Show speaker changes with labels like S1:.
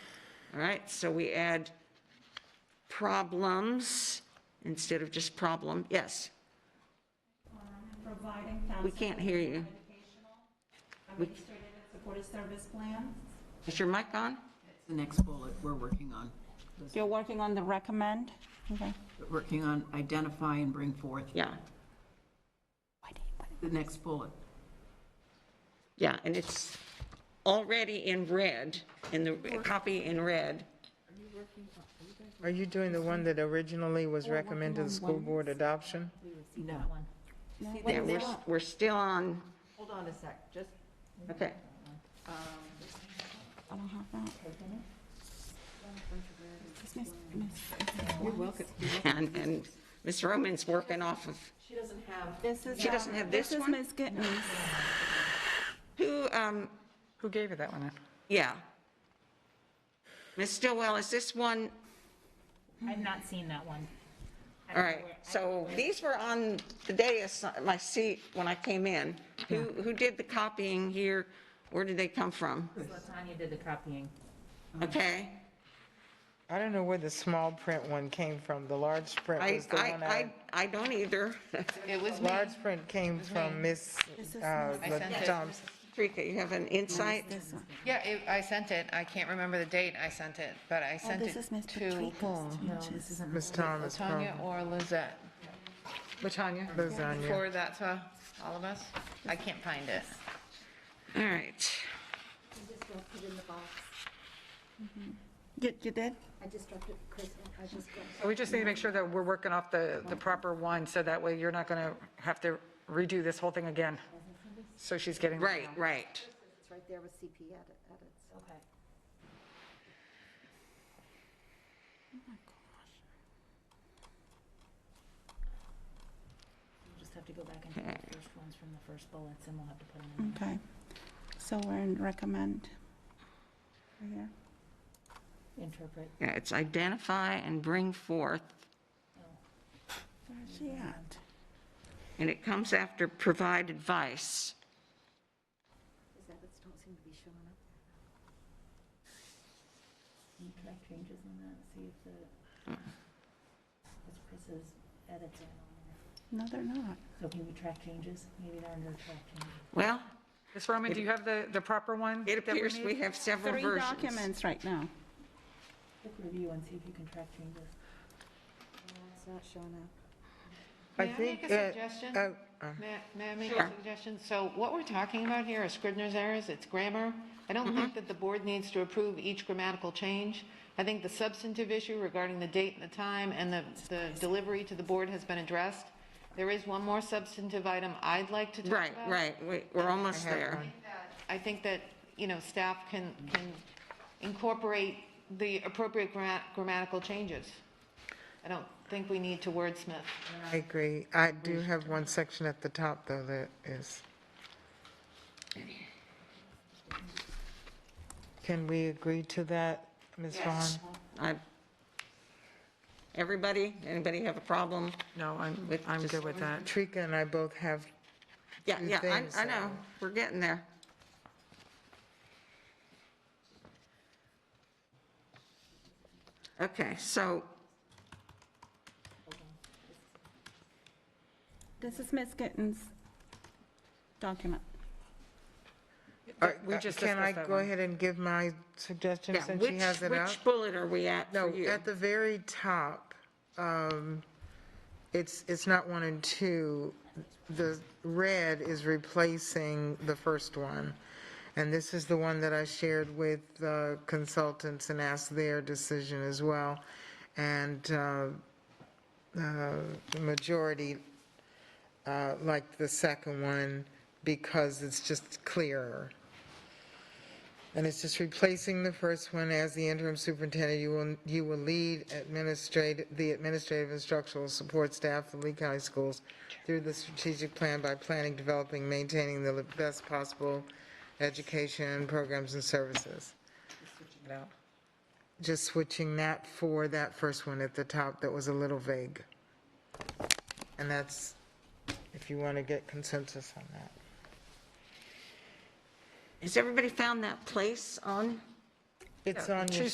S1: All right, so we add problems instead of just problem, yes.
S2: providing counseling.
S1: We can't hear you.
S2: Educational, administrative and supportive service plans.
S1: Is your mic on?
S3: The next bullet we're working on,
S2: You're working on the recommend? Okay.
S3: working on identify and bring forth,
S1: Yeah,
S3: the next bullet.
S1: yeah, and it's already in red, in the copy in red.
S4: Are you doing the one that originally was recommended to school board adoption?
S3: No.
S1: Yeah, we're, we're still on,
S5: Hold on a sec, just,
S1: okay.
S2: I don't have that. Is Miss- Miss-
S3: You're welcome.
S1: And, and Ms. Roman's working off of,
S5: she doesn't have,
S2: This is.
S1: She
S2: uh,
S1: doesn't have this one?
S2: This is Ms. Gittens.
S1: who, um,
S4: Who gave you that one?
S1: yeah. Ms. Stillwell, is this one,
S6: I've not seen that one. I
S1: all
S6: don't know
S1: right,
S6: where- I-
S1: so these were on the dais, my seat, when I came in. Who, who did the copying here? Where did they come from?
S6: Latanya did the copying.
S1: Okay?
S4: I don't know where the small print one came from. The large print
S1: I,
S4: was the one
S1: I,
S4: I,
S1: I, I don't either.
S7: It was me.
S4: large print came from Miss uh,
S7: I sent it.
S4: Thompson.
S1: Rika, you have an insight?
S7: Yeah, it- I sent it. I can't remember the date I sent it, but
S4: Oh,
S7: I sent
S2: This
S7: it
S2: is Ms.
S7: to
S2: Patrica's.
S7: whom?
S4: Ms. Thomas.
S7: Tanya or Lizette? Latanya.
S4: Lasagna.
S7: For that to all of us? I can't find it.
S1: All right.
S2: You, you did?
S8: We just need to make sure that we're working off the, the proper one, so that way you're not going to have to redo this whole thing again. So she's getting. it
S1: Right,
S8: down.
S1: right.
S9: It's right there with CP edit- edits.
S6: Okay. We'll just have to go back and take the first ones from the first bullets, and we'll have to put them in.
S2: Okay. So we're in recommend. Right here.
S6: Interpret.
S1: Yeah, it's identify and bring forth,
S6: Oh,
S2: Where's she at?
S1: and it comes after provide advice.
S9: These edits don't seem to be showing up.
S6: Can you track changes on that, see if the, if Chris's edits are on there?
S2: No, they're not.
S6: So can we track changes? Maybe there are no track changes.
S1: Well,
S8: Ms. Roman, do you have the, the proper one?
S1: it
S8: that
S1: appears
S8: need?
S1: we have several
S2: Three
S1: versions.
S2: documents right now.
S6: Click review and see if you can track changes.
S9: It's not showing up.
S4: I
S7: May I
S4: think
S7: make a
S4: that-
S7: suggestion?
S4: oh, uh,
S7: May may I make
S1: Sure.
S7: a suggestion? So what we're talking about here are Scrivener's errors, it's grammar. I don't think that the board needs to approve each grammatical change. I think the substantive issue regarding the date and the time and the, the delivery to the board has been addressed. There is one more substantive item I'd like to talk
S1: Right,
S7: about.
S1: right, we- we're almost there.
S7: I think that, you know, staff can, can incorporate the appropriate gra- grammatical changes. I don't think we need to wordsmith.
S4: I agree. I do have one section at the top, though, that is. Can we agree to that, Ms. Vaughn?
S1: I- Everybody, anybody have a problem?
S8: No, I'm,
S1: With
S8: I'm
S1: just-
S8: good with that.
S4: Trika and I both have
S1: Yeah,
S4: Two
S1: yeah, I,
S4: things,
S1: I know,
S4: uh,
S1: we're getting there. Okay, so,
S2: This is Ms. Gittens' document.
S4: Uh,
S8: We
S4: uh,
S8: just
S4: Can I
S8: discussed that
S4: go
S8: one.
S4: ahead and give my suggestion
S1: yeah,
S4: since
S1: which,
S4: she has it up?
S1: which bullet are we at for
S4: No,
S1: you?
S4: at the very top, um, it's, it's not one and two. The red is replacing the first one. And this is the one that I shared with uh, consultants and asked their decision as well. And uh, uh, the majority uh, liked the second one because it's just clearer. And it's just replacing the first one, as the interim superintendent, you will, you will lead administrate, the administrative instructional support staff of Lee County Schools through the strategic plan by planning, developing, maintaining the best possible education programs and services. Just switching that for that first one at the top that was a little vague. And that's, if you want to get consensus on that.
S1: Has everybody found that place on?
S4: It's on your